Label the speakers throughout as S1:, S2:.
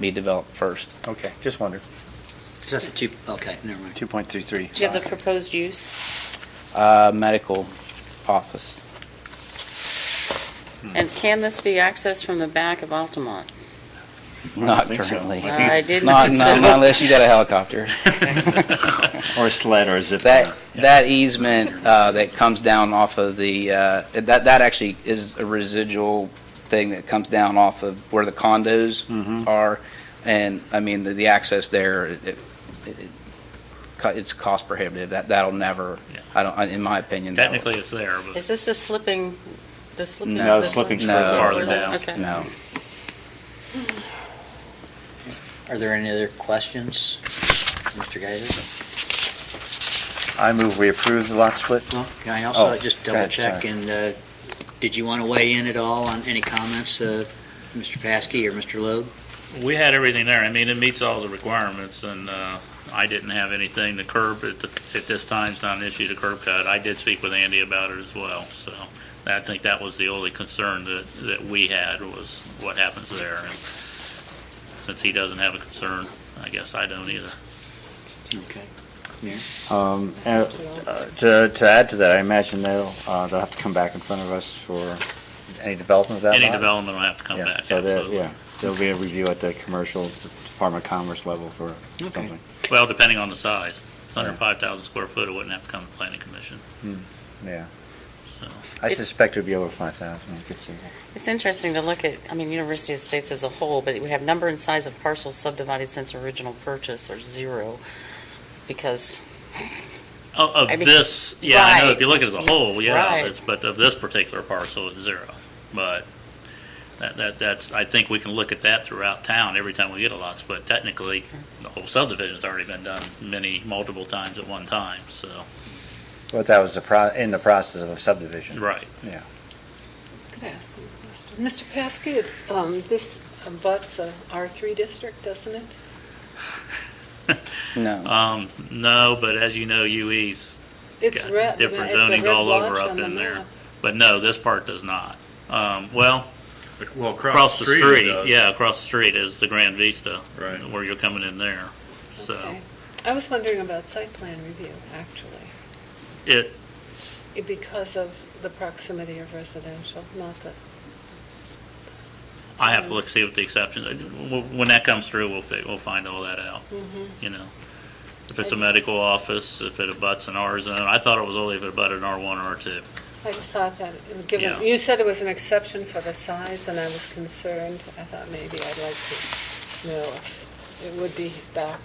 S1: be developed first.
S2: Okay, just wondered.
S3: Is that the two, okay, never mind.
S2: 2.33.
S4: Do you have the proposed use?
S1: Uh, medical office.
S4: And can this be accessed from the back of Altamont? Uh,
S1: Not
S2: think so.
S1: currently.
S4: I did
S1: Not,
S4: not
S1: not
S4: so.
S1: unless you got a helicopter.
S2: Or a sled or a zip
S1: That,
S2: line.
S1: that easement uh, that comes down off of the, uh, that, that actually is a residual thing that comes down off of where the
S5: Mm-hmm.
S1: condos are. And, I mean, the- the access there, it, it- it- co- it's cost prohibitive. That, that'll never, I don't, in my opinion. that'll-
S5: Technically, it's there,
S4: Is
S5: but
S4: this the slipping, the slipping?
S1: No,
S4: this
S2: slipping
S4: one?
S1: no,
S5: Farther down.
S4: Okay.
S1: No.
S3: Are there any other questions, Mr. Gator?
S2: I move we approve the lot split.
S3: Well, can I also
S2: Oh,
S3: just
S2: go
S3: double
S2: ahead,
S3: check
S2: sorry.
S3: and, uh, did you want to weigh in at all on any comments, uh, Mr. Paskey or Mr. Logue?
S5: we had everything there. I mean, it meets all the requirements, and uh, I didn't have anything. The curb at the- at this time is not an issue, the curb cut. I did speak with Andy about it as well, so I think that was the only concern that that we had was what happens there. And Since he doesn't have a concern, I guess I don't either.
S3: Okay. Mayor?
S2: Um, and, uh, To to add to that, I imagine they'll, uh, they'll have to come back in front of us for any development of that
S5: Any
S2: lot?
S5: development will have to come
S2: Yeah,
S5: back,
S2: so there-
S5: absolutely.
S2: Yeah, there'll be a review at the commercial Department of Commerce level for
S3: Okay.
S2: something.
S5: Well, depending on the size. If it's under
S2: Yeah.
S5: 5,000 square foot, it wouldn't have to come to planning commission,
S2: Yeah.
S5: so.
S2: I suspect it'd be over 5,000, I could see that.
S4: It's interesting to look at, I mean, University of States as a whole, but we have number and size of parcels subdivided since original purchase are zero, because,
S5: Of, Oh, of
S4: I mean,
S5: this, yeah, I know if
S4: right.
S5: you look at it as a whole, yeah,
S4: Right.
S5: it's, but of this particular parcel, it's zero. But that, that, that's, I think we can look at that throughout town every time we get a lot split. Technically, the whole subdivision's already been done many, multiple times at one time, so,
S2: But that was the pro, in the process of a subdivision.
S5: right.
S2: Yeah.
S6: Could I ask you a question? Mr. Paskey, um, this abuts a R3 district, doesn't it?
S1: No.
S5: Um, no, but as you know, UE's
S6: It's
S5: got
S6: red.
S5: different
S6: it's a
S5: zonings
S6: red
S5: all over
S6: blotch
S5: up
S6: on the
S5: in there.
S6: map.
S5: But no, this part does not. Um, well,
S7: Well,
S5: across the
S7: it
S5: street,
S7: does.
S5: yeah, across the street is the Grand Vista.
S7: Right.
S5: Where you're coming in there, so.
S6: Okay. I was wondering about site plan review, actually,
S5: It,
S6: It- because of the proximity of residential, not the,
S5: I
S6: Mm-hmm.
S5: have to look, see what the exceptions, are. Wh- when that comes through, we'll, fi- we'll find all that out, you know. If it's a
S6: Mm-hmm. I just-
S5: medical office, if it abuts an R zone, I thought it was only if it abutted an R one or R two.
S6: I just thought that, and
S5: Yeah.
S6: given, you said it was an exception for the size, and I was concerned. I thought maybe I'd like to know if it would be back.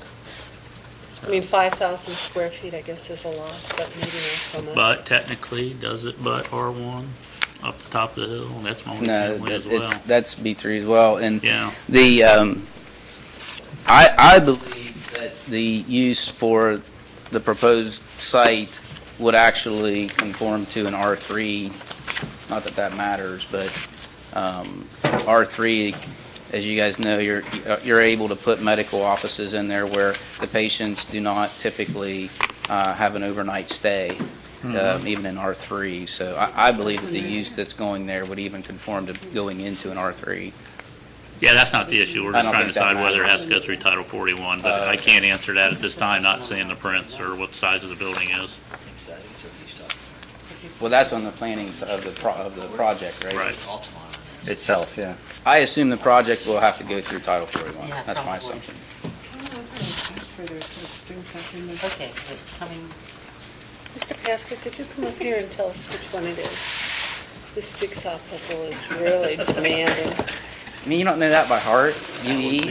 S6: I mean, 5,000 square feet, I guess, is a lot, but maybe not so much.
S5: But technically, does it butt R one up the top of the hill? That's my only
S1: No,
S5: family as
S1: that-
S5: well.
S1: it's, that's B3 as well. And
S5: Yeah,
S1: The, um, I, I believe that the use for the proposed site would actually conform to an R3, not that that matters, but, um, R3, as you guys know, you're, you're able to put medical offices in there where the patients do not typically, uh, have an overnight stay, um, even in R3. So I, I believe that the use that's going there would even conform to going into an R3.
S5: yeah, that's not the issue. We're
S1: I
S5: just
S1: don't
S5: trying to
S1: think that Uh,
S5: decide whether it has to go through Title forty-one, but I can't answer that at this time, not seeing the prints or what size of the building is.
S3: I think so, I think so, he's talking
S1: Well, that's on the planning s- of the, pro- of the project, right?
S5: Right.
S3: about Altamont.
S2: Itself, yeah.
S1: I assume the project will have to go through Title 41.
S4: Yeah,
S1: That's my
S4: probably.
S1: assumption.
S4: okay, is it coming?
S6: Mr. Pasco, could you come up here and tell us which one it is? This jigsaw puzzle is really demanding.
S1: I mean, you don't know that by heart, UE?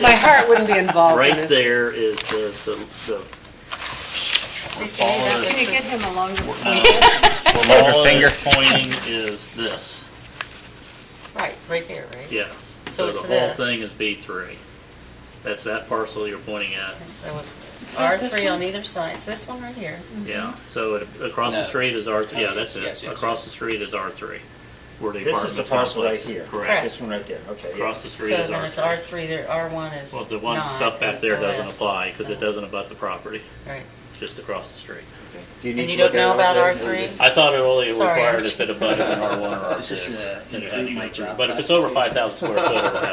S6: My heart wouldn't be involved
S5: Uh, Right there is the, the, the
S6: Can you get him a longer
S5: No.
S2: her
S5: All
S2: finger.
S5: that's pointing is this,
S4: Right, right here, right?
S5: yes.
S4: So it's
S5: The whole
S4: this.
S5: thing is B3. That's that parcel you're pointing at,
S4: So R3 on either side, it's this one right here.
S5: yeah. So it- across the
S1: No.
S5: street is R3, yeah, that's
S1: Yes,
S5: it.
S1: yes,
S5: Across the street is R3. where the
S2: This is the
S5: apartment
S2: parcel right
S5: complex is.
S2: here.
S4: Correct.
S5: Correct.
S2: This one right there, okay. yeah.
S5: Across the
S4: So
S5: street is
S4: then it's
S5: R3.
S4: R3, there, R1 is
S5: Well,
S4: not.
S5: the one stuff back
S4: and
S5: there
S4: the
S5: doesn't
S4: rest,
S5: apply because it
S4: so-
S5: doesn't abut the property,
S4: Right.
S5: just across the street.
S2: Do need
S4: And you
S2: to look
S4: don't know
S2: at
S4: about
S2: it?
S4: R3?
S5: I thought it only
S4: Sorry,
S5: required
S4: Archie.
S5: if it abutted an R1 or
S3: It's just, uh,
S5: R2. then it had to go
S3: improvement
S5: through.
S3: job.
S5: But if it's over 5,000 square foot, it'll have